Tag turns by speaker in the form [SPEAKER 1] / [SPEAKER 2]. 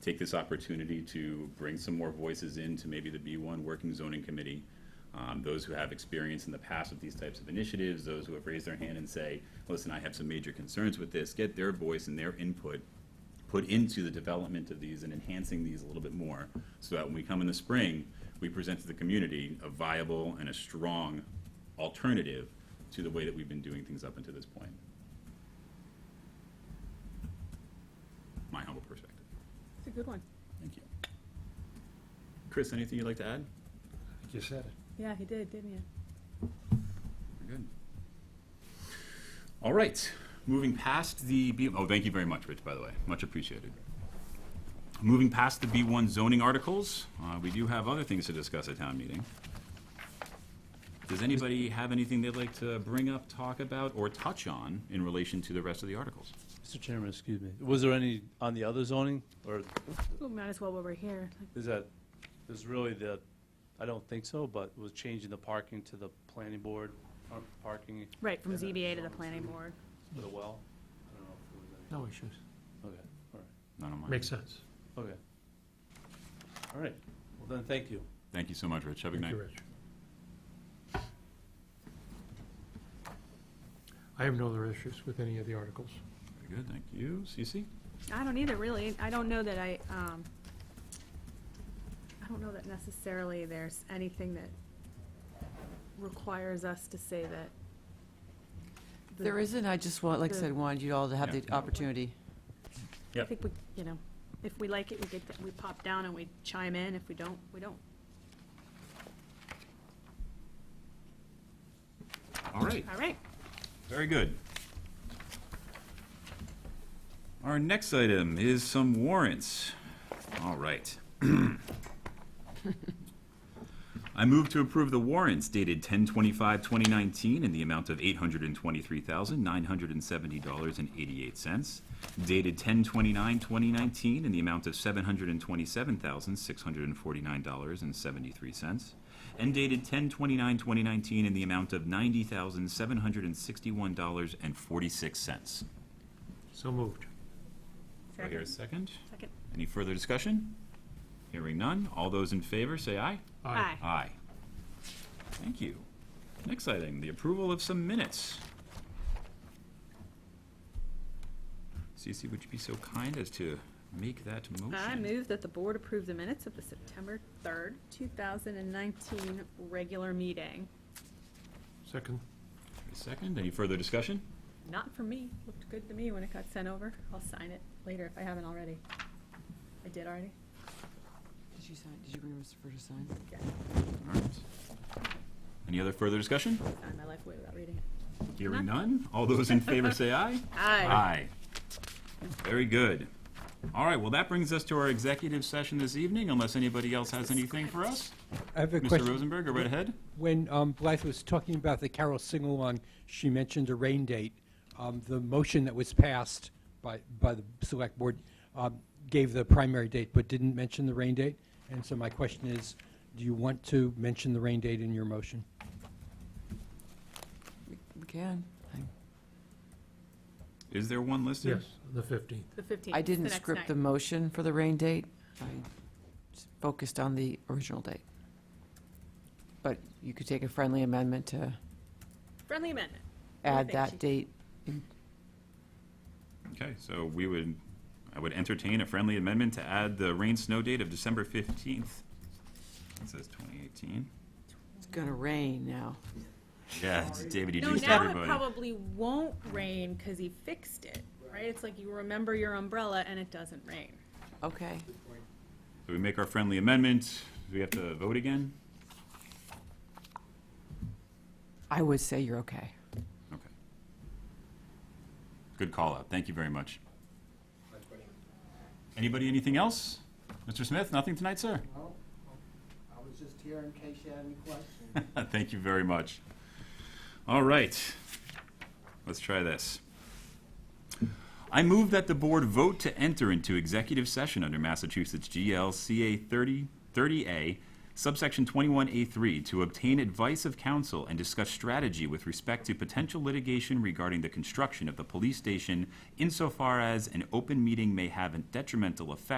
[SPEAKER 1] take this opportunity to bring some more voices into maybe the B1 Working Zoning Committee. Um, those who have experience in the past with these types of initiatives, those who have raised their hand and say, listen, I have some major concerns with this, get their voice and their input put into the development of these and enhancing these a little bit more, so that when we come in the spring, we present to the community a viable and a strong alternative to the way that we've been doing things up until this point. My humble perspective.
[SPEAKER 2] It's a good one.
[SPEAKER 1] Thank you. Chris, anything you'd like to add?
[SPEAKER 3] You said it.
[SPEAKER 2] Yeah, he did, didn't you?
[SPEAKER 1] We're good. All right, moving past the B, oh, thank you very much, Rich, by the way, much appreciated. Moving past the B1 zoning articles, uh, we do have other things to discuss at town meeting. Does anybody have anything they'd like to bring up, talk about, or touch on in relation to the rest of the articles?
[SPEAKER 4] Mr. Chairman, excuse me, was there any on the other zoning, or
[SPEAKER 2] We might as well while we're here.
[SPEAKER 4] is that, is really the, I don't think so, but was changing the parking to the planning board, or parking
[SPEAKER 2] Right, from
[SPEAKER 4] Yeah, that's
[SPEAKER 2] ZBA to the
[SPEAKER 4] all I'm
[SPEAKER 2] planning
[SPEAKER 4] saying.
[SPEAKER 2] board.
[SPEAKER 4] for the well? I don't know if there
[SPEAKER 3] No issues.
[SPEAKER 4] was any. Okay, all
[SPEAKER 1] None of mine.
[SPEAKER 3] Makes sense.
[SPEAKER 4] right, okay. All right, well then, thank you.
[SPEAKER 1] Thank you so much, Rich. Have a good
[SPEAKER 3] Thank
[SPEAKER 1] night.
[SPEAKER 3] you, Rich. I have no other issues with any of the articles.
[SPEAKER 1] Very good, thank you. Cece?
[SPEAKER 2] I don't either, really. I don't know that I, um, I don't know that necessarily there's anything that requires us to say that. the-
[SPEAKER 5] There isn't, I just want, like I said, wanted you all to have
[SPEAKER 1] Yeah.
[SPEAKER 5] the opportunity.
[SPEAKER 2] I think we, you know, if we like it, we get, that- we pop down and we chime in. If we don't, we don't.
[SPEAKER 1] All right.
[SPEAKER 2] All right.
[SPEAKER 1] Very good. Our next item is some warrants. All right. I move to approve the warrants dated 10/25/2019 in the amount of $823,970.88, dated 10/29/2019 in the amount of $727,649.73, and dated 10/29/2019 in the amount of $90,761.46.
[SPEAKER 3] So moved.
[SPEAKER 1] Do I hear a second?
[SPEAKER 2] Second.
[SPEAKER 1] Any further discussion? Hearing none. All those in favor, say aye.
[SPEAKER 2] Aye.
[SPEAKER 1] Aye. Thank you. Next item, the approval of some minutes. Cece, would you be so kind as to make that motion?
[SPEAKER 2] I move that the board approve the minutes of the September 3rd, 2019 regular meeting.
[SPEAKER 3] Second.
[SPEAKER 1] A Second, any further discussion?
[SPEAKER 2] Not for me. Looked good to me when it got sent over. I'll sign it later if I haven't already. I did already?
[SPEAKER 5] Did you sign, did you bring Mr. Fur to sign?
[SPEAKER 2] Yeah.
[SPEAKER 1] All right. Any other further discussion?
[SPEAKER 2] Signed my life away without reading it.
[SPEAKER 1] Hearing none, all those in favor say aye.
[SPEAKER 2] Aye.
[SPEAKER 1] Very good. All right, well, that brings us to our executive session this evening, unless anybody else has anything for us.
[SPEAKER 6] I have a
[SPEAKER 1] Mr.
[SPEAKER 6] question.
[SPEAKER 1] Rosenberg, go right ahead.
[SPEAKER 6] When um, Blythe was talking about the Carol Singalong, she mentioned a rain date. Um, The motion that was passed by, by the Select Board um, gave the primary date, but didn't mention the rain date. And so my question is, do you want to mention the rain date in your motion?
[SPEAKER 5] We can.
[SPEAKER 1] Is there one listed?
[SPEAKER 3] Yes, the 15th.
[SPEAKER 2] The 15th.
[SPEAKER 5] I
[SPEAKER 2] It's the
[SPEAKER 5] didn't
[SPEAKER 2] next
[SPEAKER 5] script
[SPEAKER 2] night.
[SPEAKER 5] the motion for the rain date. I s- focused on the original date. But you could take a friendly amendment to
[SPEAKER 2] Friendly amendment. think
[SPEAKER 5] add
[SPEAKER 2] she-
[SPEAKER 5] that date.
[SPEAKER 1] Okay, so we would, I would entertain a friendly amendment to add the rain-snow date of December 15th. It says 2018.
[SPEAKER 5] It's gonna rain now.
[SPEAKER 1] Yeah, David, you
[SPEAKER 2] No,
[SPEAKER 1] jinxed
[SPEAKER 2] now it
[SPEAKER 1] everybody.
[SPEAKER 2] probably won't rain because he fixed it, right? It's like you remember your umbrella and it doesn't rain.
[SPEAKER 5] Okay.
[SPEAKER 1] So we make our friendly amendment. Do we have to vote again?
[SPEAKER 5] I would say you're okay.
[SPEAKER 1] Okay. Good call out. Thank you very much. Anybody, anything else? Mr. Smith, nothing tonight, sir?
[SPEAKER 7] Well, I was just here in case you had any questions.
[SPEAKER 1] Thank you very much. All right, let's try this. I move that the board vote to enter into executive session under Massachusetts GLCA 30, 30A, subsection 21A3, to obtain advice of counsel and discuss strategy with respect to potential litigation regarding the construction of the police station insofar as an open meeting may have a detrimental effect